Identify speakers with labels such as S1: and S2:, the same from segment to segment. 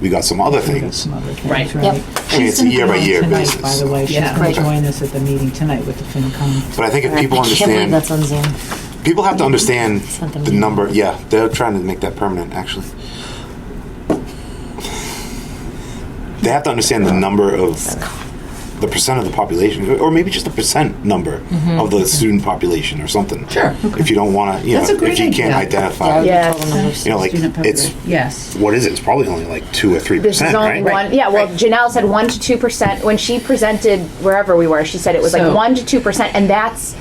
S1: we got some other
S2: We got
S1: things.
S2: some other
S3: Right.
S2: things, right?
S3: Yep.
S1: mean,
S2: She's
S1: it's a
S2: gonna come
S1: year by
S2: on
S1: year
S2: tonight,
S1: basis.
S2: By the way, she's
S3: Yeah.
S2: going
S1: Right.
S2: to join us at the meeting tonight with the FinCom.
S1: But I think if people
S4: I can't believe
S1: understand,
S4: that's on Zoom.
S1: people have to understand
S4: Sent them
S1: the
S4: an
S1: number. Yeah, they're trying to make that permanent, actually. They have to understand the number of the percent of the population, or maybe just the percent number of the student population, or something.
S3: Mm-hmm. Sure.
S1: If you don't want to, you
S3: That's a
S1: know, if
S3: great
S1: you can't
S3: idea.
S1: identify,
S4: Yeah,
S5: Yes.
S4: total numbers.
S1: you know, like
S3: Student
S1: it's
S3: population. Yes.
S1: what is it? It's probably only like two or three
S5: This is
S1: percent,
S5: only
S1: right?
S5: one. Yeah, well, Janelle said one to two percent when she presented wherever we were. She said it was
S3: So-
S5: like one to two percent, and that's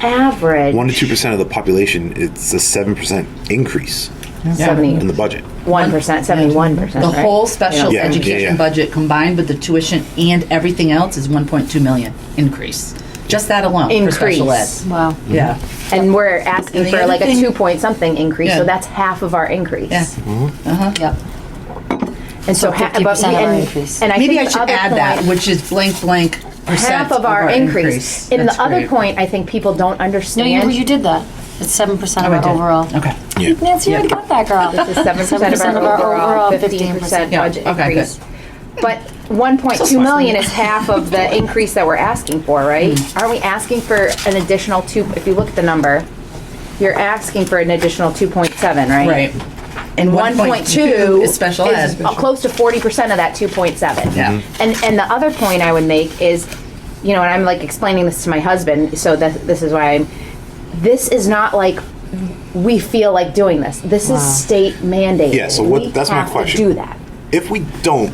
S5: average.
S1: One to two percent of the population. It's a seven percent increase in
S5: seventy
S1: the budget.
S5: one percent, seventy one percent.
S3: The whole special
S1: Yeah. Yeah, yeah, yeah.
S3: education budget combined with the tuition and everything else is 1.2 million increase. Just that alone for special ed.
S5: Increase.
S4: Wow.
S3: Yeah,
S5: and we're asking
S3: And the
S5: for
S3: other
S5: like a
S3: thing-
S5: two point something increase.
S3: Yeah.
S5: So that's half of our increase.
S3: yeah.
S4: Yep.
S5: And so, ha- but
S4: 50%
S5: we-
S4: of our
S5: and,
S4: increase.
S5: and I
S3: Maybe I
S5: think the
S3: should
S5: other
S3: add that,
S5: point-
S3: which is blank, blank percent.
S5: half of our, increase. In
S3: That's
S5: the other
S3: great.
S5: point, I think people don't
S4: No,
S5: understand.
S4: you, you did that. It's seven percent
S3: Oh,
S4: of
S3: I
S4: our
S3: did.
S4: overall.
S3: Okay.
S1: Yeah.
S4: Nancy, you already got that, girl.
S5: This is seven percent of our overall fifteen percent
S3: Yeah,
S5: budget
S3: okay,
S5: increase. But one point two million is half of the increase that we're asking for, right? Aren't we asking for an additional two, if you look at the number, you're asking for an additional two point seven, right?
S3: Right. And
S5: One point two
S3: is special
S5: is
S3: ed.
S5: Close to forty percent of that two point seven.
S3: Yeah. Mhm.
S5: And, and the other point I would make is, you know, and I'm like explaining this to my husband, so that, this is why I'm, this is not like, we feel like doing this. This is state mandated.
S1: Yeah, so what-
S5: We
S1: that's my
S5: have to
S1: question.
S5: Do that.
S1: if we don't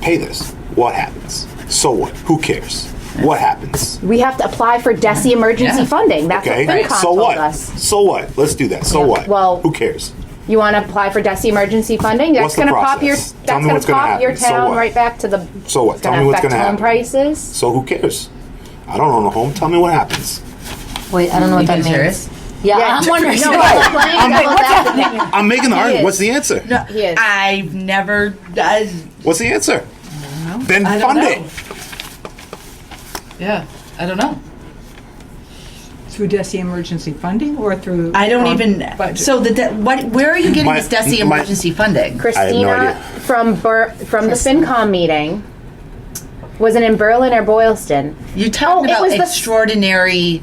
S1: pay this, what happens? So what? Who cares? What happens?
S5: We have to apply for DESI emergency
S3: Yeah.
S5: funding. That's what
S1: Okay.
S5: FinCom
S1: So
S5: told
S1: what?
S5: us.
S1: So what? Let's do that. So
S5: Yeah,
S1: what?
S5: well-
S1: who cares?
S5: You want to apply for DESI emergency funding? That's
S1: What's the
S5: going to pop your,
S1: process?
S5: that's
S1: Tell me
S5: going
S1: what's
S5: to
S1: gonna
S5: pop your
S1: happen. So
S5: town
S1: what?
S5: right back to the.
S1: So what?
S5: it's
S1: Tell
S5: gonna
S1: me what's
S5: affect
S1: gonna
S5: home
S1: happen.
S5: Prices.
S1: So who cares? I don't own a home. Tell me what happens.
S4: Wait, I don't know what
S3: You
S4: that
S3: guys
S4: means.
S3: hear us?
S4: Yeah, I'm wondering.
S5: No, I'm playing devil's advocate.
S1: I'm making the argument.
S5: is.
S1: What's the answer?
S5: He is.
S3: I've never, I,
S1: What's the answer? Then
S3: I don't
S1: fund
S3: know.
S1: it.
S3: yeah, I don't know.
S2: Uh, Through DESI emergency funding or through?
S3: I don't
S2: um,
S3: even,
S2: budget?
S3: so the, de- what, where are you getting
S1: My-
S3: this DESI
S1: my-
S3: emergency funding?
S5: Christina
S1: idea.
S5: from Bur- from the FinCom meeting was it in Berlin or Boylston?
S3: You're talking
S5: Oh, it was
S3: about
S5: the-
S3: extraordinary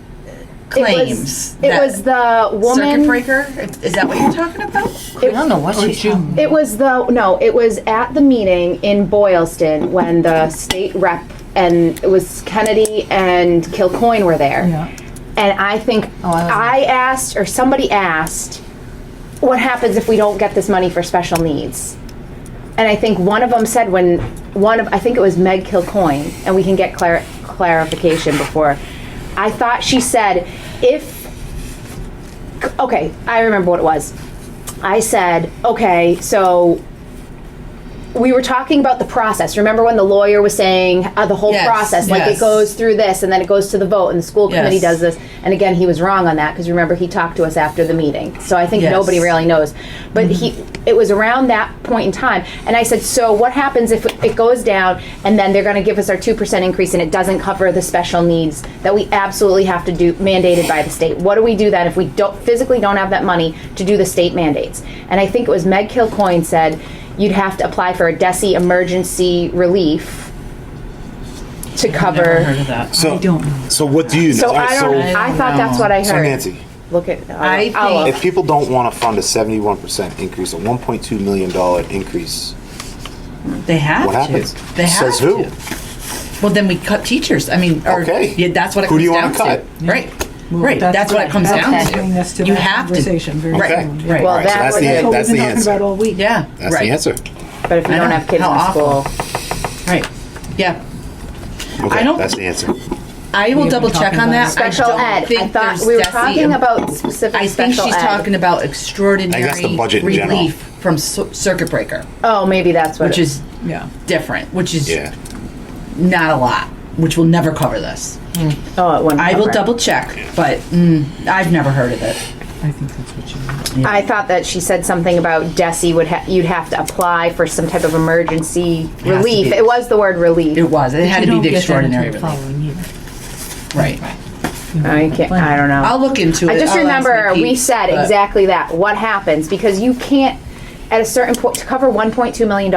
S3: claims.
S5: It was, it
S3: that-
S5: was the
S3: Circuit
S5: woman.
S3: breaker? Is- Is that what you're talking about?
S4: I don't know
S3: Oh,
S4: what she's doing.
S5: It was the no. It was at the meeting in Boylston when the state rep and it was Kennedy and Kilcoyne were there.
S2: Yeah.
S5: And Oh, I think
S4: I wasn't.
S5: I, asked or somebody asked, what happens if we don't get this money for special needs? And I think one of them said when one of I think it was Meg Kilcoyne, and we can get clar- clarification before. I thought she said if okay, I remember what it was. I said, okay, so we were talking about the process. Remember when the lawyer was saying uh, the whole
S3: Yes,
S5: process, like
S3: yes.
S5: it goes through this and then it goes to the vote and the school
S3: Yes.
S5: committee does this. And again, he was wrong on that because remember he talked to us after the meeting. So I think
S3: Yes.
S5: nobody really knows.
S1: Mm-hmm.
S5: But he, it was around that point in time, and I said, so what happens if it goes down and then they're going to give us our two percent increase and it doesn't cover the special needs that we absolutely have to do mandated by the state? What do we do then if we don't physically don't have that money to do the state mandates? And I think it was Meg Kilcoyne said you'd have to apply for a DESI E emergency relief to
S3: Never heard
S5: cover.
S3: of that.
S1: So,
S2: don't know.
S1: so what do you know?
S5: So
S1: All right,
S5: I don't. I thought that's what I heard.
S1: so Nancy,
S5: Look at. oh, I'll-
S3: I think-
S5: I'll-
S1: if people don't want to fund a 71% increase, a 1.2 million dollar increase,
S3: They have
S1: what
S3: to.
S1: happens?
S3: They have
S1: Says who?
S3: to. Well, then we cut teachers. I mean, or,
S1: Okay.
S3: yeah, that's what it
S1: Who
S3: comes
S1: do you
S3: down
S1: wanna cut?
S3: to. Right. Right. That's, what it comes
S2: That's
S3: down
S2: bringing us
S3: to.
S2: to
S3: you
S2: that
S3: have
S2: conversation
S3: to.
S2: very
S1: Okay.
S2: soon.
S3: Right.
S5: Well,
S1: All right, so
S5: that
S1: that's the,
S5: was-
S1: an-
S2: So we've
S1: that's
S2: been
S1: the
S2: talking about
S1: answer.
S2: all week.
S3: Yeah.
S1: That's
S3: right.
S1: the answer.
S5: But if you
S3: I
S5: don't
S3: know.
S5: have kids
S3: How
S5: in
S3: awful.
S5: school,
S3: Right. Yeah.
S1: Okay,
S3: I don't-
S1: that's the answer.
S3: I will
S2: been
S3: double check
S2: talking
S3: on
S2: about
S3: that. I
S5: special
S3: don't
S5: ed. I
S3: think
S5: thought
S3: there's
S5: we were
S3: DESE
S5: talking
S3: em-
S5: about specific
S3: I think
S5: special
S3: she's
S5: ed.
S3: talking about extraordinary
S1: budget in general.
S3: relief from cir- circuit breaker,
S5: Oh, maybe that's what.
S3: which
S5: it-
S3: is
S2: Yeah.
S3: different, which is
S1: Yeah.
S3: not a lot, which will never cover this.
S5: oh, it wouldn't
S3: I will
S5: cover it.
S3: double check, but mm, I've never heard of it.
S2: I think that's what you meant.
S5: I thought that she said something about Desi would ha- you'd have to apply for some type of emergency
S3: to
S5: relief.
S3: be-
S5: It was the word relief.
S3: It was. It had
S2: You
S3: to be
S2: don't get
S3: the
S2: that
S3: extraordinary
S2: until the
S3: relief.
S2: following year.
S3: Right.
S5: I can't. I don't know.
S3: I'll look into it.
S5: I just
S3: I'll ask
S5: remember
S3: Nikki,
S5: we said
S3: but-
S5: exactly that. What happens because you can't. at a certain point to cover 1.2 million dollars